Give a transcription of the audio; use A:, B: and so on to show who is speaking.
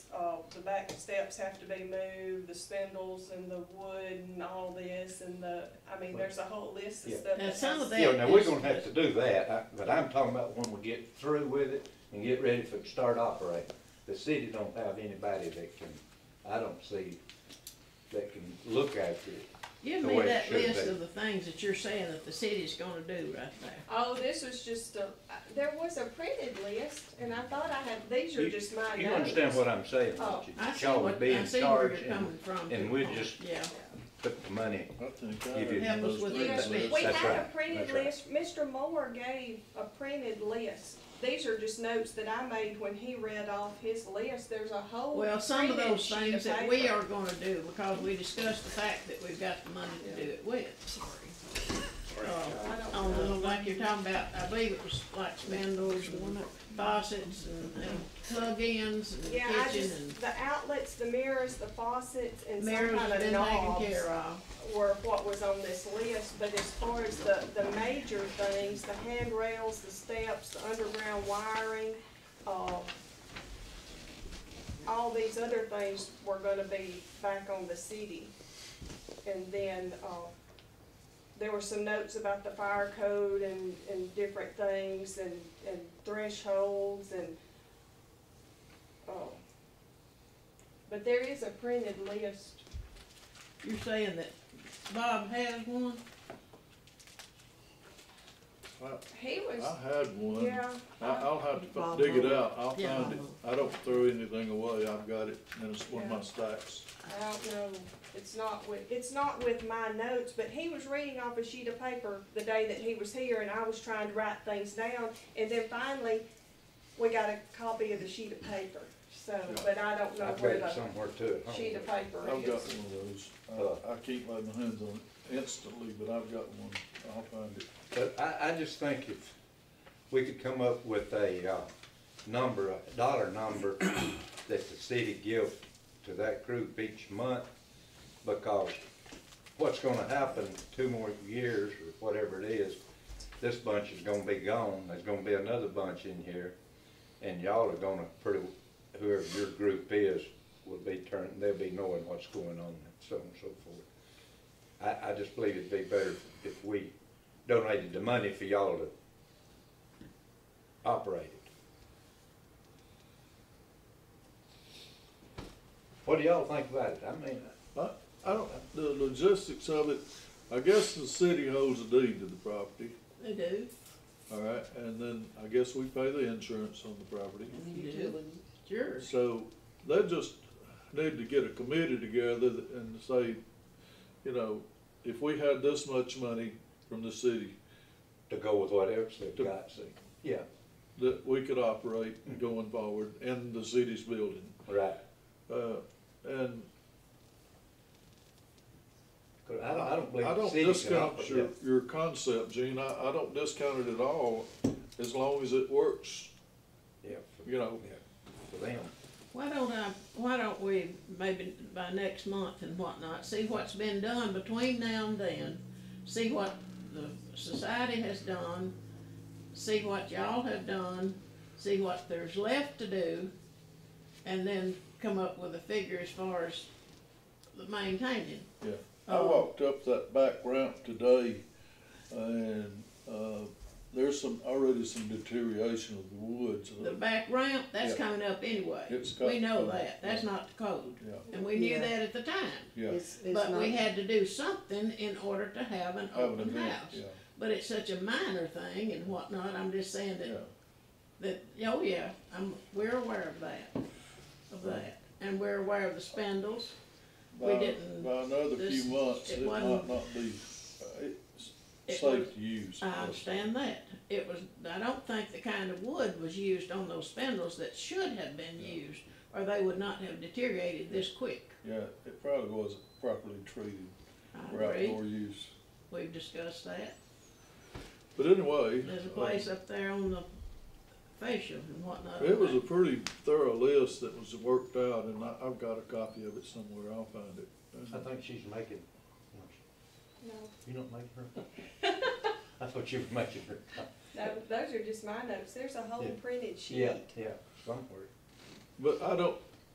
A: uh, the back steps have to be moved, the spindles and the wood and all this and the, I mean, there's a whole list of
B: Yeah.
A: stuff.
C: Now,
A: that
C: some
A: has-
C: of that-
B: Yeah, now we're gonna have to do that, I- but I'm talking about when we get through with it and get ready for, start operating. The city don't have anybody that can, I don't see, that can look after it.
C: Give
B: the
C: me
B: way it
C: that
B: should
C: list
B: be.
C: of the things that you're saying that the city's gonna do right there.
A: Oh, this was just a, there was a printed list and I thought I had, these are
B: You-
A: just my notes.
B: You understand what I'm saying,
A: Oh,
B: don't you?
C: I see
B: Y'all
C: what,
B: be
C: I
B: in
C: see where
B: charge
C: you're
B: and
C: coming from.
B: and
C: to-
B: we'll just-
C: Yeah,
B: Put the money,
D: I think I
B: Give you-
D: have those
C: Help us with
A: You
D: things
A: know,
C: Yes,
D: listed.
C: ma'am.
A: we
B: That's
A: had a
B: right.
A: printed
B: That's right.
A: list, Mr. Moore gave a printed list. These are just notes that I made when he read off his list, there's a whole
C: well, some of
A: printed
C: those
A: sheet
C: things
A: of
C: that we
A: paper.
C: are gonna do, because we discussed the fact that we've got the money to do it with.
A: I
C: Uh,
A: don't
C: on the, like you're talking about, I believe it was like spindles and faucets and, and plug-ins and
A: Yeah, I
C: kitchen
A: just, the outlets, the mirrors, the faucets, and
C: and
A: some
C: mirrors
A: kind
C: have
A: of
C: been taken
A: knobs
C: care of.
A: were what was on this list, but as far as the, the major things, the handrails, the steps, the underground wiring, uh, all these other things were gonna be back on the city. And then, uh, there were some notes about the fire code and, and different things and, and thresholds and, oh. But there is a printed list
C: You're saying that Bob has one?
A: He was.
D: I had one.
A: yeah.
D: I, I'll have to f- dig it out. I'll
C: Yeah.
D: find it. I don't throw anything away. I've got it in s- one of my stacks.
A: I don't know. It's not with. It's not with my notes. But he was reading off a sheet of paper the day that he was here, and I was trying to write things down. And then finally, we got a copy of the sheet of paper. So, but I don't know
B: I've got
A: where
B: it
A: the
B: somewhere too at home.
A: sheet of paper
D: I've got one
A: is.
D: of those. I, I can't lay my hands on it instantly, but I've got one. I'll find it.
B: But I, I just think if we could come up with a, uh, number, a dollar number that the city gives to that group each month, because what's gonna happen two more years or whatever it is, this bunch is gonna be gone, there's gonna be another bunch in here, and y'all are gonna pretty, whoever your group is, will be turning, they'll be knowing what's going on and so on and so forth. I, I just believe it'd be better if we donated the money for y'all to operate it. What do y'all think about it? I mean,
D: I, I don't, the logistics of it, I guess the city holds a deed to the property,
C: They do.
D: all right? And then I guess we pay the insurance on the property.
C: They do. Sure.
D: So they just need to get a committee together and say, you know, if we had this much money from the city,
B: to go with whatever they've got, see, yeah,
D: that we could operate going forward in the city's building.
B: right.
D: Uh, and
B: 'Cause I don't, I don't believe
D: I
B: the
D: don't
B: city can
D: discount
B: operate
D: your,
B: it.
D: your concept, Gene, I, I don't discount it at all, as long as it works,
B: Yeah, for-
D: you know.
B: yeah, for them.
C: Why don't I, why don't we, maybe by next month and whatnot, see what's been done between now and then? See what the society has done, see what y'all have done, see what there's left to do, and then come up with a figure as far as the maintaining.
D: Yeah, I
C: Uh,
D: walked up that back ramp today, and, uh, there's some, already some deterioration of the woods.
C: The back ramp, that's
D: Yeah.
C: coming up anyway.
D: It's got-
C: We know that, that's not the code,
D: Yeah,
C: and we knew
E: Yeah.
C: that at the time.
D: yeah.
C: But we had to do something in order to have an
D: Have an
C: open
D: event,
C: house.
D: yeah,
C: But it's such a minor thing and whatnot, I'm just saying
D: yeah.
C: that, that, oh yeah, I'm, we're aware of that, of that. And we're aware of the spindles, We
D: By-
C: didn't-
D: By another few
C: this-
D: months,
C: it
D: it might
C: wasn't-
D: not be, uh, it's
C: It
D: safe to use.
C: I understand that. It was, I don't think the kind of wood was used on those spindles that should have been
D: Yeah.
C: used, or they would not have deteriorated this quick.
D: Yeah, it probably wasn't properly treated
C: I
D: for
C: agree,
D: outdoor use.
C: we've discussed that.
D: But anyway.
C: There's a
D: uh,
C: place up there on the facial and whatnot.
D: It was a pretty thorough list that was worked out, and I, I've got a copy of it somewhere, I'll find it.
B: I think she's making,
A: No,
B: you don't make her? I thought you were making her.
A: no, those are just my notes. There's a whole
B: Yeah.
A: printed sheet.
B: Yeah, yeah, somewhere.
D: But I don't,